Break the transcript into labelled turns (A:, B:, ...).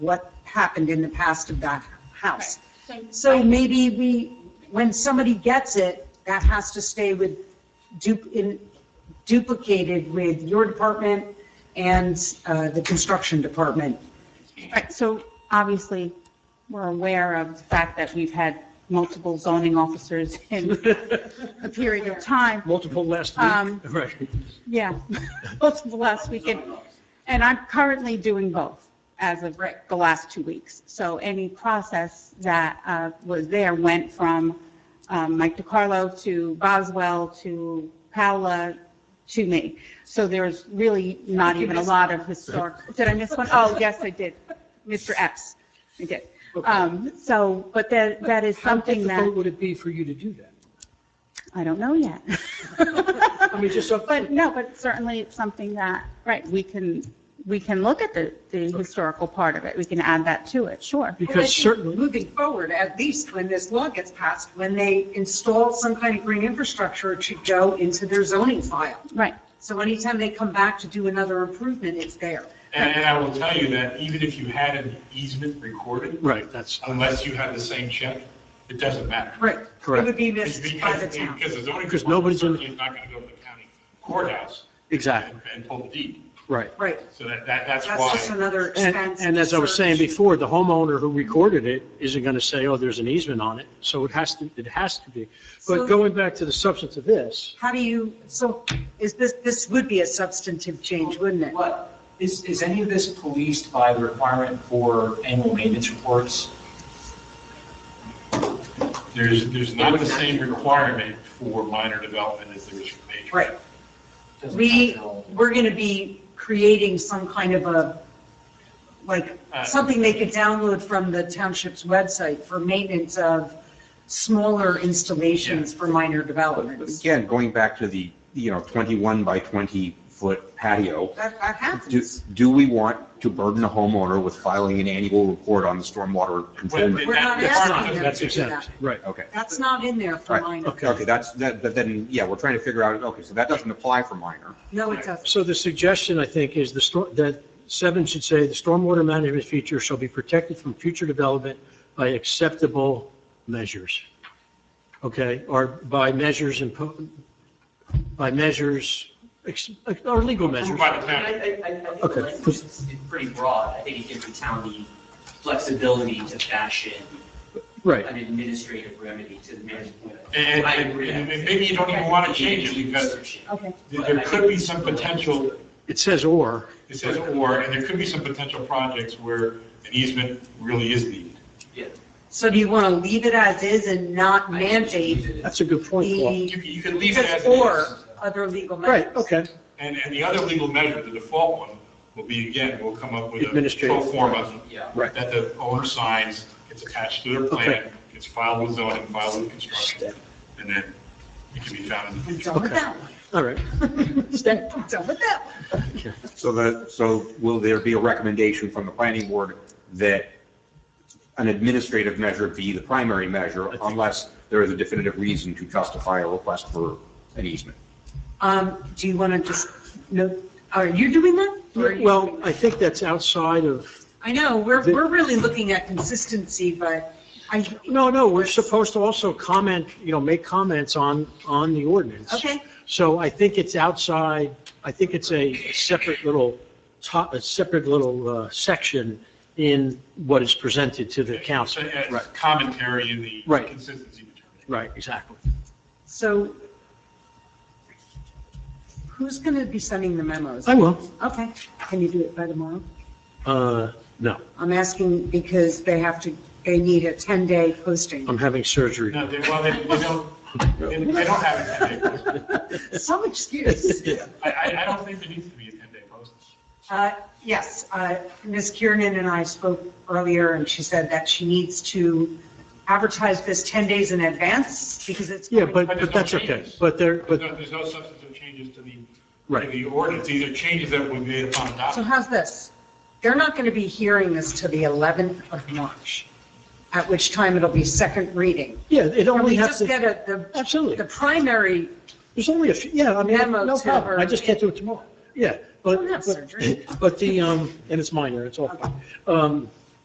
A: what happened in the past of that house.
B: Right.
A: So maybe we, when somebody gets it, that has to stay with, du- in- duplicated with your department and uh, the construction department.
B: Right, so obviously, we're aware of the fact that we've had multiple zoning officers in a period of time.
C: Multiple last
B: Um,
C: week, right.
B: Yeah, multiple last weekend. And I'm currently doing both as of the last two weeks. So any process that uh, was there went from um, Mike DiCarlo to Boswell to Paola to me. So there's really not even a lot of historic, did I miss one? Oh, yes, I did. Mr. Epps, I did. Um, So, but that, that is something
C: How
B: that,
C: difficult would it be for you to do that?
B: I don't know yet.
C: I mean, just up,
B: But no, but certainly it's something that, right, we can, we can look at the, the historical part of it. We can add that to it, sure.
A: Well, I
C: because
A: think
C: certainly,
A: Moving forward, at least when this law gets passed, when they install some kind of green infrastructure, it should go into their zoning file.
B: Right,
A: So anytime they come back to do another improvement, it's there.
D: And, and I will tell you that even if you had an easement recorded,
C: right, that's,
D: unless you had the same check, it doesn't matter.
A: Right. It would
C: Correct.
A: be
D: It's
A: missed by
D: Because,
A: the town.
D: because the zoning.
C: Because nobody's in-
D: Certainly is not going to go to the county courthouse
C: exactly,
D: and and pull the deed.
C: right.
A: Right.
D: So that, that, that's
A: That's just
D: why.
A: another
C: And,
A: expense.
C: and as I was saying before, the homeowner who recorded it isn't going to say, oh, there's an easement on it, so it has to, it has to be.
A: So-
C: But going back to the substance of this,
A: How do you, so is this, this would be a substantive change, wouldn't it?
E: What, is, is any of this policed by the requirement for annual maintenance reports?
D: There's, there's not the same requirement for minor development as there is for major.
A: Right. We, we're going to be creating some kind of a, like,
D: Uh,
A: something they could download from the township's website for maintenance of smaller installations for minor
F: But
A: developments.
F: Again, going back to the, you know, 21 by 20 foot patio,
A: That, that
F: do,
A: happens.
F: do we want to burden a homeowner with filing an annual report on the stormwater
D: Well,
F: control?
A: We're not
D: that- that's
A: asking
D: not-
A: them
C: that's
A: to do
C: exempt, right.
F: Okay,
A: That's not in there for
F: Right.
A: minor.
F: okay, that's, that, but then, yeah, we're trying to figure out, okay, so that doesn't apply for minor.
A: No, it doesn't.
C: So the suggestion, I think, is the, stor- that seven should say, the stormwater management feature shall be protected from future development by acceptable measures. Okay, or by measures impo, by measures, ex- or legal measures.
D: Approved by the
E: I,
D: county.
E: I, I think the
C: Okay.
E: language is is pretty broad. I think it gives the town the flexibility to fashion
C: Right,
E: an administrative remedy to the management. point.
D: And,
E: I
D: and
E: agree.
D: and maybe you don't even want to change it because
A: Okay.
D: there could be some potential
C: it says or,
D: It says or, and there could be some potential projects where an easement really is needed.
E: Yeah.
A: So do you want to leave it as is and not mandate
C: that's a good point, Paul.
A: the,
D: You, you could leave it as
A: because
D: it
A: or
D: is.
A: other legal measures?
C: Right, okay,
D: And, and the other legal measure, the default one, will be, again, we'll come up with a
C: Administrative.
D: pro forma
E: Yeah.
C: Right.
D: that the owner signs, gets attached to their plan, gets filed with zoning, filed with construction, and then it can be found in the
A: I'm
D: future.
A: done with
C: Okay.
A: that one.
C: all right. Step.
A: I'm done with that one.
F: So the, so will there be a recommendation from the planning board that an administrative measure be the primary measure unless there is a definitive reason to justify a request for an easement?
A: Um, do you want to just, no, are you doing that? Or are you
C: Well,
A: doing that?
C: I think that's outside of,
A: I know, we're,
C: The-
A: we're really looking at consistency, but I,
C: no, no, we're supposed to also comment, you know, make comments on, on the ordinance.
A: okay,
C: So I think it's outside, I think it's a separate little, top, a separate little uh, section in what is presented to the council.
D: It's a- it's
C: Right.
D: Commentary in the
C: Right.
D: consistency determination.
C: Right, exactly.
A: so who's going to be sending the memos?
C: I will.
A: Okay, can you do it by tomorrow?
C: Uh, No,
A: I'm asking because they have to, they need a 10-day posting.
C: I'm having surgery.
D: No, they, well, they, they don't, they they don't have a ten-day postage.
A: Some excuse.
D: I, I, I don't think there needs to be a ten-day postage.
A: Uh, Yes, uh, Ms. Kiernan and I spoke earlier, and she said that she needs to advertise this 10 days in advance because it's.
C: Yeah, but, but that's okay. But there, but,
D: No, There's no substantive changes to the, to
C: right,
D: the ordinance, these are changes that were made upon
A: So
D: adoption.
A: how's this? They're not going to be hearing this till the 11th of March, at which time it'll be second reading.
C: yeah, it
A: Can
C: only
A: we
C: has
A: just
C: to,
A: get a- the, the
C: absolutely.
A: primary,
C: There's only a few, yeah, I mean,
A: Memo
C: no
A: to
C: problem. I
A: her.
C: just can't do it tomorrow. Yeah, but,
A: don't have
C: but-
A: surgery.
C: but the, um, and it's minor, it's all fine. Um,